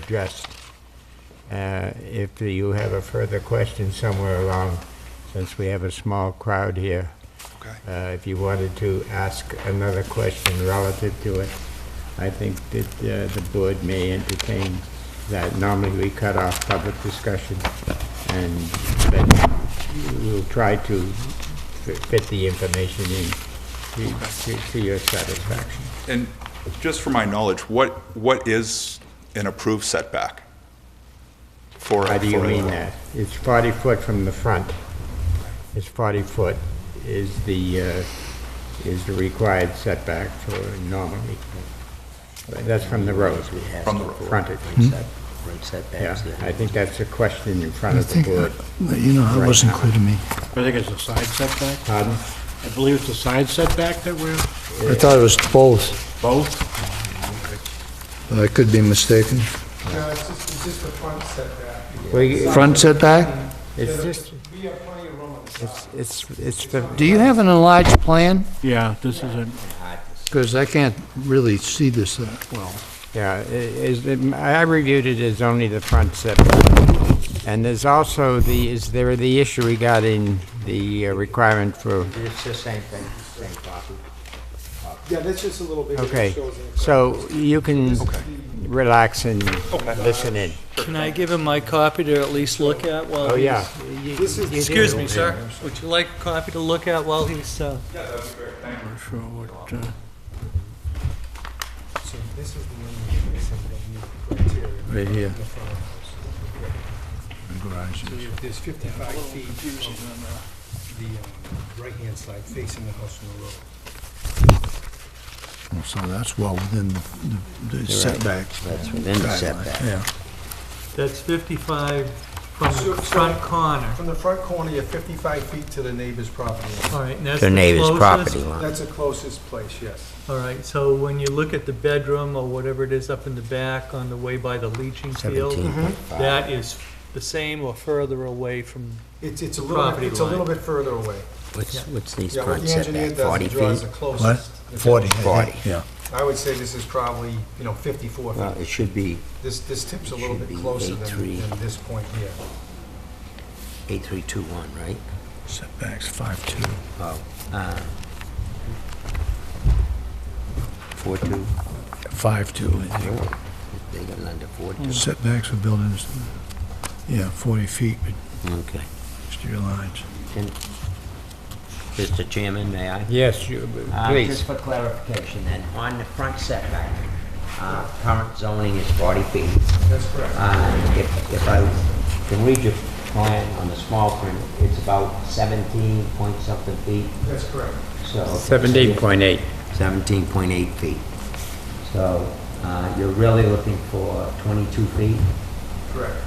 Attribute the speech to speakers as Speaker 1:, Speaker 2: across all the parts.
Speaker 1: addressed. Uh, If you have a further question somewhere along, since we have a small crowd here,
Speaker 2: Okay.
Speaker 1: uh, if you wanted to ask another question relative to it, I think that uh, the board may entertain that. Normally, we cut off public discussion, and, but we'll try to fi- fit the information in to- to- to your satisfaction.
Speaker 2: And just for my knowledge, what, what is an approved setback? For
Speaker 1: How do you
Speaker 2: for-
Speaker 1: mean that? It's 40 foot from the front. It's 40 foot is the, uh, is the required setback for normally. That's from the road.
Speaker 2: From the road.
Speaker 1: Frontage. Yeah,
Speaker 3: Right setbacks.
Speaker 1: I think that's a question in front
Speaker 4: I
Speaker 1: of the
Speaker 4: think, uh,
Speaker 1: board.
Speaker 4: that- you know, that wasn't clear to me.
Speaker 5: I think it's a side setback.
Speaker 1: Pardon?
Speaker 5: I believe it's a side setback that we're,
Speaker 4: I thought it was both,
Speaker 5: both?
Speaker 4: but I could be mistaken.
Speaker 6: No, it's just, it's just the front setback.
Speaker 1: We-
Speaker 4: Front setback?
Speaker 1: It's just,
Speaker 6: We have plenty of room on the side.
Speaker 1: it's- it's, it's the,
Speaker 4: Do you have an enlarged plan?
Speaker 5: Yeah, this isn't,
Speaker 4: Because I can't really see this uh, that well.
Speaker 1: yeah, i- is, the- I reviewed it as only the front setback. And there's also the, is there the issue regarding the uh, requirement for
Speaker 3: It's the same thing, same copy.
Speaker 6: Yeah, that's just a little bit.
Speaker 1: Okay, so you can relax and listen in.
Speaker 7: Can I give him my copy to at least look at while he's...
Speaker 1: Oh, yeah.
Speaker 7: Excuse me, sir. Would you like a copy to look at while he's, uh...
Speaker 5: not sure what, uh,
Speaker 6: So this is the only criteria.
Speaker 4: Right here.
Speaker 6: the front of the house. So if there's 55 feet on the um, right-hand side facing the house from the road.
Speaker 4: So that's well within the- the the setback.
Speaker 3: That's within the
Speaker 4: guideline,
Speaker 3: setback.
Speaker 4: Yeah.
Speaker 7: That's 55 from
Speaker 6: So-
Speaker 7: the front corner.
Speaker 6: From the front corner, you're 55 feet to the neighbor's property. line.
Speaker 7: All right, and that's
Speaker 3: The
Speaker 7: the
Speaker 3: neighbor's property
Speaker 7: closest.
Speaker 3: line.
Speaker 6: That's the closest place, yes.
Speaker 7: All right, so when you look at the bedroom or whatever it is up in the back on the way by the leaching field,
Speaker 3: 17.5.
Speaker 7: that is the same or further away from,
Speaker 6: It's, it's a little,
Speaker 7: Property
Speaker 6: it's a
Speaker 7: line.
Speaker 6: little bit further away.
Speaker 3: What's, what's these
Speaker 6: Yeah, what
Speaker 3: front
Speaker 6: the engineer
Speaker 3: setback,
Speaker 6: does,
Speaker 3: 40
Speaker 6: he draws
Speaker 3: feet?
Speaker 6: the closest.
Speaker 4: 40, I think.
Speaker 3: 40.
Speaker 4: Yeah.
Speaker 6: I would say this is probably, you know, 54 feet.
Speaker 3: Well, it should be
Speaker 6: This, this tip's a
Speaker 3: It
Speaker 6: little
Speaker 3: should
Speaker 6: bit
Speaker 3: be
Speaker 6: closer than,
Speaker 3: 83.
Speaker 6: than this point here.
Speaker 3: 8321, right?
Speaker 4: Setback's 5'2".
Speaker 3: Oh, uh... 42.
Speaker 4: 5'2", I think.
Speaker 3: Oh, They got under 42.
Speaker 4: Setbacks for buildings, yeah, 40 feet,
Speaker 3: Okay.
Speaker 4: exterior lines.
Speaker 3: Can- Mr. Chairman, may I?
Speaker 1: Yes, you-
Speaker 3: Uh,
Speaker 1: please.
Speaker 3: Just for clarification then, on the front setback, uh, current zoning is 40 feet.
Speaker 6: That's correct.
Speaker 3: Uh, If if I can read your plan on the small print, it's about 17 point something feet,
Speaker 6: That's correct.
Speaker 3: so...
Speaker 1: 17.8.
Speaker 3: 17.8 feet. So uh, you're really looking for 22 feet?
Speaker 6: Correct.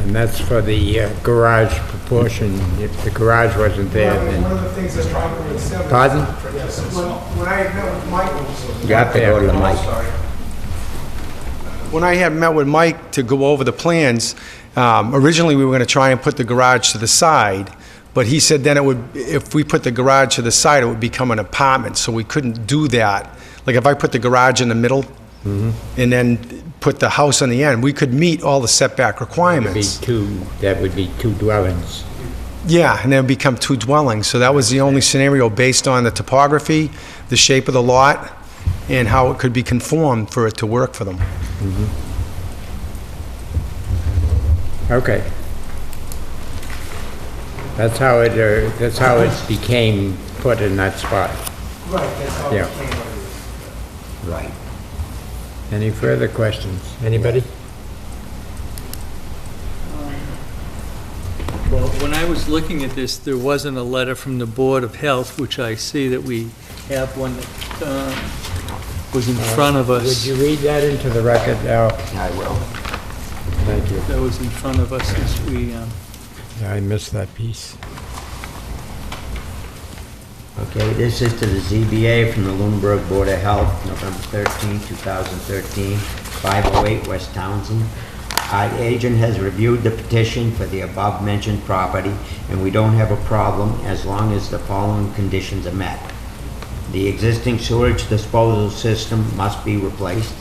Speaker 1: And that's for the uh, garage proportion. If the garage wasn't there,
Speaker 6: One of the-
Speaker 1: then...
Speaker 6: One of the things that's wrong with seven.
Speaker 1: Pardon?
Speaker 6: Yes, when, when I had met with Michael.
Speaker 3: You have to go to the mic.
Speaker 6: When I had met with Mike to go over the plans, um, originally, we were going to try and put the garage to the side, but he said then it would, if we put the garage to the side, it would become an apartment, so we couldn't do that. Like, if I put the garage in the middle
Speaker 3: Mm-hmm.
Speaker 6: and then put the house on the end, we could meet all the setback
Speaker 1: It'd be
Speaker 6: requirements.
Speaker 1: two, that would be two dwellings.
Speaker 6: Yeah, and then it'd become two dwellings, so that was the only scenario based on the topography, the shape of the lot, and how it could be conformed for it to work for them.
Speaker 1: Okay. That's how it, uh, that's how it became put in that spot.
Speaker 6: Right, that's how
Speaker 1: Yeah.
Speaker 3: Right.
Speaker 1: Any further questions? Anybody?
Speaker 7: well, when I was looking at this, there wasn't a letter from the Board of Health, which I see that we have one that uh, was in front of
Speaker 1: Uh, Would
Speaker 7: us,
Speaker 1: you read that into the record, Al?
Speaker 3: I will.
Speaker 1: Thank you.
Speaker 7: that was in front of us as we... um,
Speaker 1: I missed that piece.
Speaker 3: Okay, this is to the ZBA from the Lunenburg Board of Health, November 13, 2013, 508 West Townsend. Our agent has reviewed the petition for the above-mentioned property, and we don't have a problem as long as the following conditions are met. The existing sewage disposal system must be replaced.